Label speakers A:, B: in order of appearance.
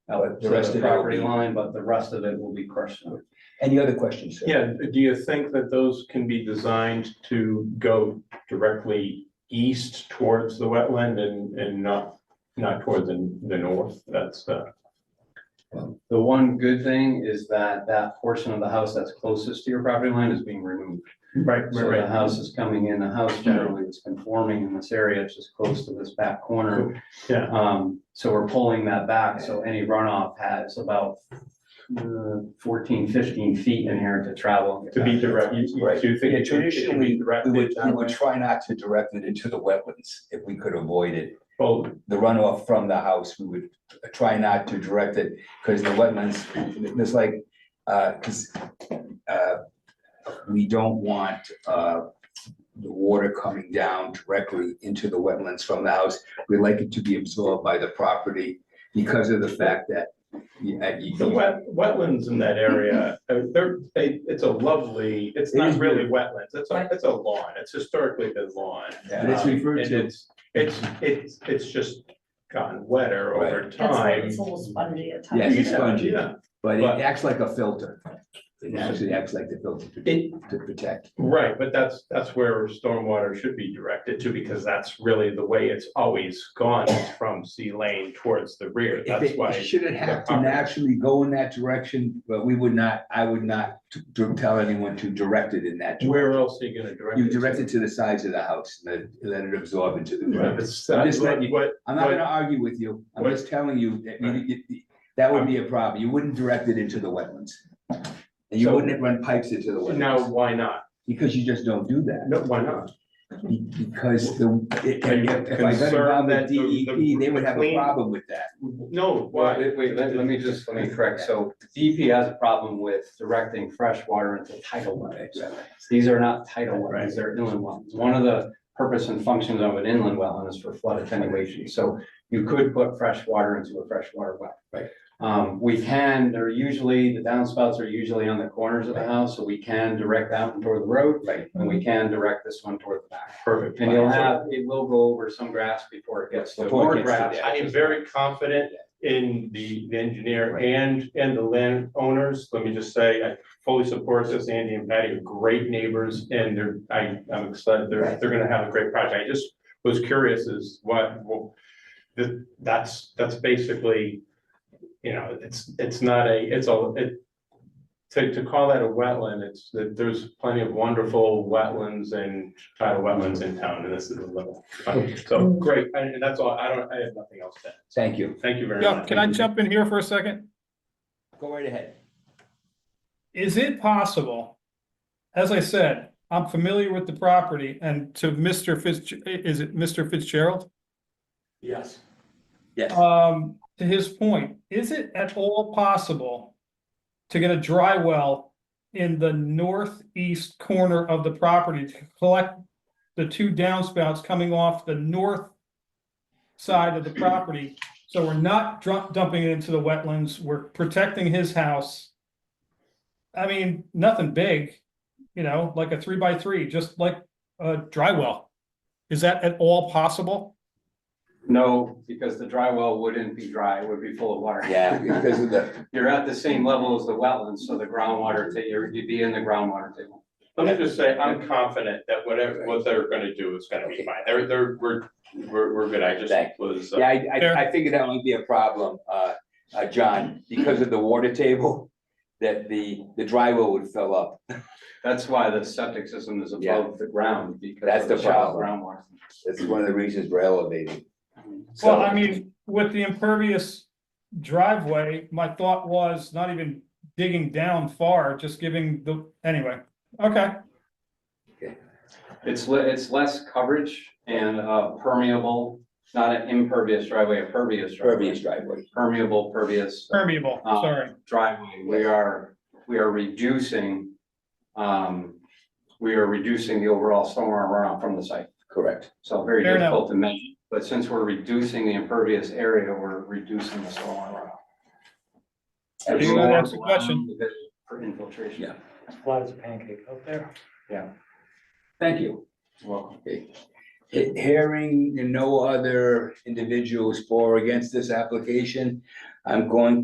A: uh,
B: But
A: the
B: to
A: rest of it will
B: Property
A: be-
B: line, but the rest of it will be crushed. out.
A: Any other questions? sir?
C: Yeah, do you think that those can be designed to go directly east towards the wetland and, and not, not toward the, the north? That's, uh,
B: The one good thing is that that portion of the house that's closest to your property line is being removed.
C: right,
B: So
C: right,
B: the
C: right.
B: house is coming in, the house generally is conforming in this area, it's just close to this back corner.
C: Yeah.
B: Um, so we're pulling that back, so any runoff has about uh, 14, 15 feet in here to travel.
C: To be direct, you, you-
A: Right.
C: do you think?
A: Yeah,
C: it should- it should
A: traditionally,
C: be
A: We
C: directed
A: would, we
C: that
A: would
C: way?
A: try not to direct it into the wetlands if we could avoid it.
C: Well,
A: The runoff from the house, we would try not to direct it, because the wetlands, there's like, uh, because uh, we don't want uh, the water coming down directly into the wetlands from the house. We like it to be absorbed by the property because of the fact that you, uh, you-
C: The wet, wetlands in that area, uh, they're, they, it's a lovely, it's
A: It
C: not
A: is
C: really wetlands, it's a, it's a lawn, it's historically been lawn.
A: But it's
C: Um,
A: referred
C: and
A: to-
C: It's, it's, it's, it's just gotten wetter
A: Right.
C: over
D: That's why
C: time.
D: It's a little spongy at
A: Yeah,
D: times.
A: it's spongy.
C: Yeah,
A: but it
C: But-
A: acts like a filter. It actually acts like the filter
C: It-
A: to to protect.
C: right, but that's, that's where stormwater should be directed to, because that's really the way it's always gone, is from C lane towards the rear,
A: If
C: that's
A: it
C: why.
A: shouldn't have to
C: property-
A: naturally go in that direction, but we would not, I would not t- to tell anyone to direct it in that. direction.
C: Where else are you gonna direct?
A: You
C: it to?
A: direct it to the sides of the house, let, let it absorb into the
C: Right,
A: ground.
C: it's-
A: I'm just letting you-
C: what-
A: I'm not gonna argue with you, I'm
C: What-
A: just telling you that you-
C: Right.
A: you- you- that would be a problem, you wouldn't direct it into the wetlands. And you
C: So-
A: wouldn't run pipes into the
C: Now,
A: wetlands,
C: why not?
A: because you just don't do that.
C: No, why not?
A: Be- Because the, if
C: Are you
A: if I got around
C: concerned
A: the
C: that the-
A: DEP, E they would have a
C: the-
A: problem with that.
C: No,
B: Well,
C: why?
B: wait, wait, let, let me just, let me correct, so DEP has a problem with directing fresh water into tidal wetlands. These are not tidal wetlands, they're inland wetlands. One of the purpose and functions of an inland wetland is for flood attenuation, so you could put fresh water into a freshwater well.
A: Right.
B: Um, we can, they're usually, the downspouts are usually on the corners of the house, so we can direct that one toward the road.
A: Right.
B: And we can direct this one toward the back.
C: Perfect.
B: And you'll have, it will go over some grass before it gets to
A: Before
B: more
A: it gets to
B: grass.
C: I am very confident in the the engineer
A: Right.
C: and, and the landowners. Let me just say, I fully support this. Andy and Patty are great neighbors and they're, I, I'm excited. They're,
A: Right.
C: they're gonna have a great project. I just was curious is what, well, that, that's, that's basically, you know, it's, it's not a, it's a, it, to, to call that a wetland, it's, that there's plenty of wonderful wetlands and tidal wetlands in town and this is a little. So, great, and and that's all. I don't, I have nothing else to add.
A: Thank you.
C: Thank you very
E: Yeah,
C: much.
E: can I jump in here for a second?
A: Go right ahead.
E: Is it possible? As I said, I'm familiar with the property and to Mr. Fitz, is it Mr. Fitzgerald?
C: Yes.
A: Yes.
E: Um, to his point, is it at all possible to get a dry well in the northeast corner of the property to collect the two downspouts coming off the north side of the property? So we're not dr- dumping it into the wetlands, we're protecting his house. I mean, nothing big, you know, like a three by three, just like a dry well. Is that at all possible?
B: No, because the dry well wouldn't be dry, it would be full of water.
A: Yeah, because of the,
B: You're at the same level as the wetlands, so the groundwater, ta- you're- you'd be in the groundwater table.
C: Let me just say, I'm confident that whatever, what they're gonna do is gonna be fine. They're, they're, we're, we're, we're good. I just
A: Thank
C: was. uh,
A: yeah, I, I, I figured that would be a problem, uh, uh, John, because of the water table, that the, the dry well would fill up.
B: That's why the septic system is above the ground, because
A: That's
B: of the
A: the
B: shallow
A: problem.
B: groundwater.
A: That's one of the reasons we're elevating.
E: Well,
A: So-
E: I mean, with the impervious driveway, my thought was not even digging down far, just giving the, anyway, okay.
B: It's, le- it's less coverage and uh, permeable, not an impervious driveway, a pervious
A: Pervious
B: driveway.
A: driveway.
B: Permeable, pervious
E: Permeable,
B: Uh,
E: sorry.
B: driveway, we are, we are reducing, um, we are reducing the overall stormwater runoff from the site.
A: Correct.
B: So very
E: Fair enough.
B: difficult to measure, but since we're reducing the impervious area, we're reducing the stormwater runoff.
E: Are you gonna ask a question?
B: For infiltration.
A: Yeah.
F: Flat as a pancake up there.
A: Thank you.
B: Welcome.
A: He- Hearing no other individuals for or against this application, I'm going